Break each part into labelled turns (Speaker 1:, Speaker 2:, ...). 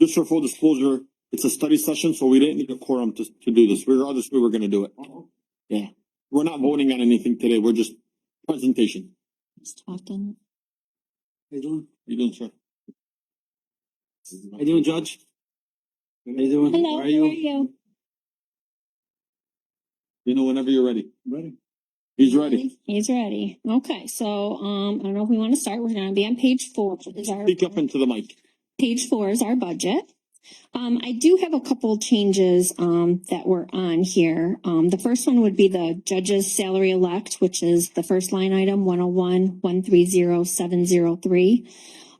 Speaker 1: Just for full disclosure, it's a study session, so we didn't need a quorum to, to do this. Regardless, we were gonna do it. Yeah, we're not voting on anything today. We're just presentation.
Speaker 2: Just talking.
Speaker 3: How you doing?
Speaker 1: You doing, sir?
Speaker 3: How you doing, Judge? How you doing?
Speaker 2: Hello,
Speaker 3: Where are you?
Speaker 2: you?
Speaker 1: You know, whenever you're ready.
Speaker 3: Ready.
Speaker 1: He's ready.
Speaker 2: He's ready. Okay, so, um, I don't know if we wanna start, we're gonna be on page four. Is our-
Speaker 1: Speak up into the mic.
Speaker 2: Page four is our budget. Um, I do have a couple changes, um, that were on here. Um, the first one would be the judge's salary elect, which is the first line item, one oh one, one three zero, seven zero three.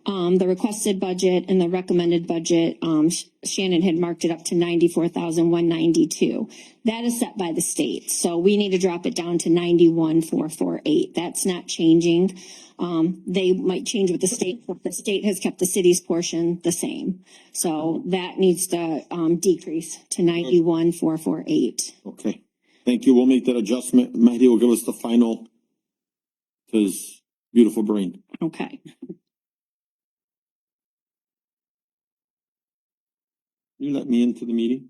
Speaker 2: Um, the requested budget and the recommended budget, um, Sh- Shannon had marked it up to ninety-four thousand, one ninety-two. That is set by the state, so we need to drop it down to ninety-one, four, four, eight. That's not changing. Um, they might change with the state, but the state has kept the city's portion the same. So that needs to, um, decrease to ninety-one, four, four, eight.
Speaker 1: Okay, thank you. We'll make that adjustment. Mahdi will give us the final. to His beautiful brain.
Speaker 2: Okay.
Speaker 1: You let me into the meeting?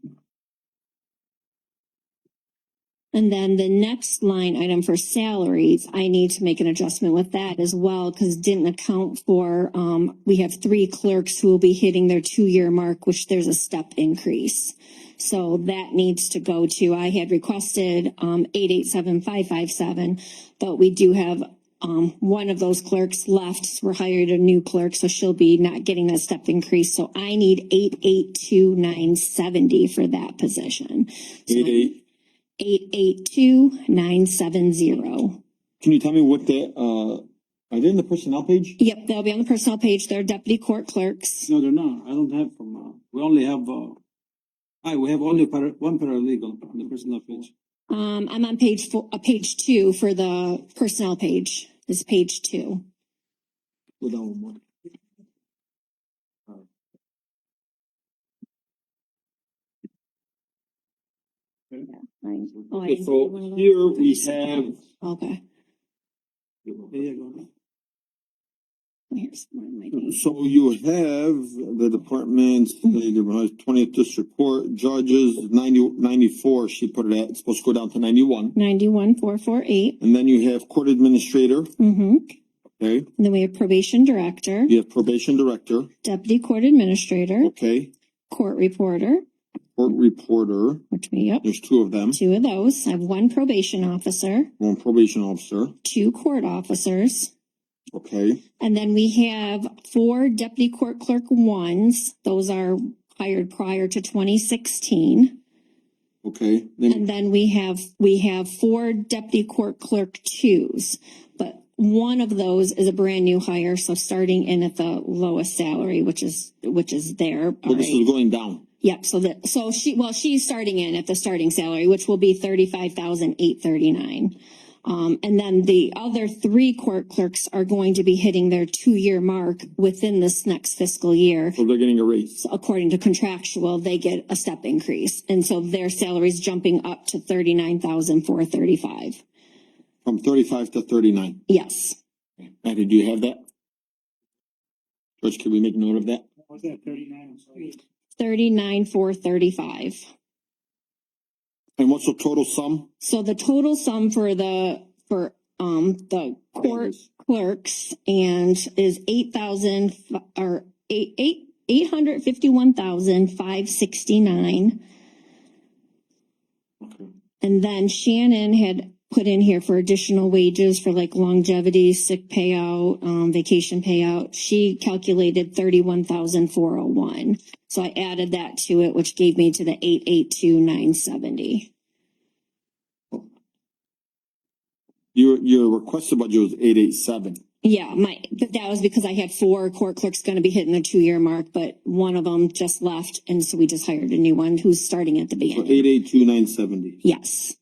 Speaker 2: And then the next line item for salaries, I need to make an adjustment with that as well, because didn't account for, um, we have three clerks who will be hitting their two-year mark, which there's a step increase. So that needs to go to, I had requested, um, eight, eight, seven, five, five, seven, but we do have, um, one of those clerks left. We're hired a new clerk, so she'll be not getting that step increase. So I need eight, eight, two, nine, seventy for that position. So
Speaker 1: Eight eight.
Speaker 2: eight eight two nine seven zero.
Speaker 1: Can you tell me what the, uh, are they in the personnel page?
Speaker 2: Yep, they'll be on the personnel page. They're deputy court clerks.
Speaker 3: No, they're not. I don't have from, uh, we only have, uh, I, we have only para, one paralegal on the personal page.
Speaker 2: Um, I'm on page four, uh, page two for the personnel page. Is page two.
Speaker 1: Go down one.
Speaker 2: Right. Oh, I
Speaker 1: Okay,
Speaker 2: didn't see one
Speaker 1: so
Speaker 2: of those.
Speaker 1: here we have.
Speaker 2: Okay.
Speaker 3: There you go.
Speaker 2: Here's one of my things.
Speaker 1: So you have the departments, the twentieth district court, judges, ninety, ninety-four, she put it at, it's supposed to go down to ninety-one.
Speaker 2: Ninety-one four four eight.
Speaker 1: And then you have court administrator,
Speaker 2: Mm-hmm.
Speaker 1: okay,
Speaker 2: And then we have probation director,
Speaker 1: you have probation director,
Speaker 2: deputy court administrator,
Speaker 1: okay,
Speaker 2: court reporter,
Speaker 1: court reporter,
Speaker 2: which we, yep,
Speaker 1: there's two of them,
Speaker 2: two of those. I have one probation officer,
Speaker 1: one probation officer,
Speaker 2: two court officers,
Speaker 1: okay,
Speaker 2: And then we have four deputy court clerk ones. Those are hired prior to twenty sixteen.
Speaker 1: okay.
Speaker 2: And
Speaker 1: Then,
Speaker 2: then we have, we have four deputy court clerk twos. But one of those is a brand new hire, so starting in at the lowest salary, which is, which is there.
Speaker 1: well, this is
Speaker 2: already.
Speaker 1: going down,
Speaker 2: Yep, so that, so she, well, she's starting in at the starting salary, which will be thirty-five thousand eight thirty-nine. Um, and then the other three court clerks are going to be hitting their two-year mark within this next fiscal year.
Speaker 1: so they're getting a raise.
Speaker 2: So According to contractual, they get a step increase, and so their salary's jumping up to thirty-nine thousand four thirty-five.
Speaker 1: From thirty-five to thirty-nine.
Speaker 2: Yes,
Speaker 1: Matty, do you have that? George, can we make note of that?
Speaker 3: What's that, thirty-nine?
Speaker 2: thirty-nine four thirty-five.
Speaker 1: And what's the total sum?
Speaker 2: So the total sum for the, for, um, the court clerks and is eight thousand or eight, eight, eight hundred fifty-one thousand five sixty-nine.
Speaker 1: Okay.
Speaker 2: And then Shannon had put in here for additional wages for like longevity, sick payout, um, vacation payout. She calculated thirty-one thousand four oh one. So I added that to it, which gave me to the eight eight two nine seventy.
Speaker 1: Your, your requested budget was eight eight seven.
Speaker 2: Yeah, my, but that was because I had four court clerks gonna be hitting their two-year mark, but one of them just left, and so we just hired a new one who's starting at the
Speaker 1: So
Speaker 2: beginning.
Speaker 1: eight eight two nine seventy.
Speaker 2: Yes,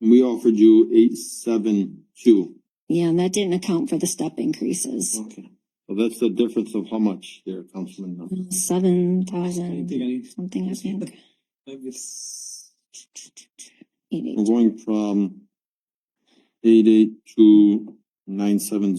Speaker 1: We offered you eight seven two.
Speaker 2: yeah, and that didn't account for the step increases.
Speaker 1: Okay. Mm-hmm. So that's the difference of how much there, Councilman.
Speaker 2: Seven
Speaker 3: I
Speaker 2: thousand
Speaker 3: think I need,
Speaker 2: something, I think.
Speaker 3: maybe it's,
Speaker 2: Eight,
Speaker 1: We're
Speaker 2: eight.
Speaker 1: going from eight eight two nine seven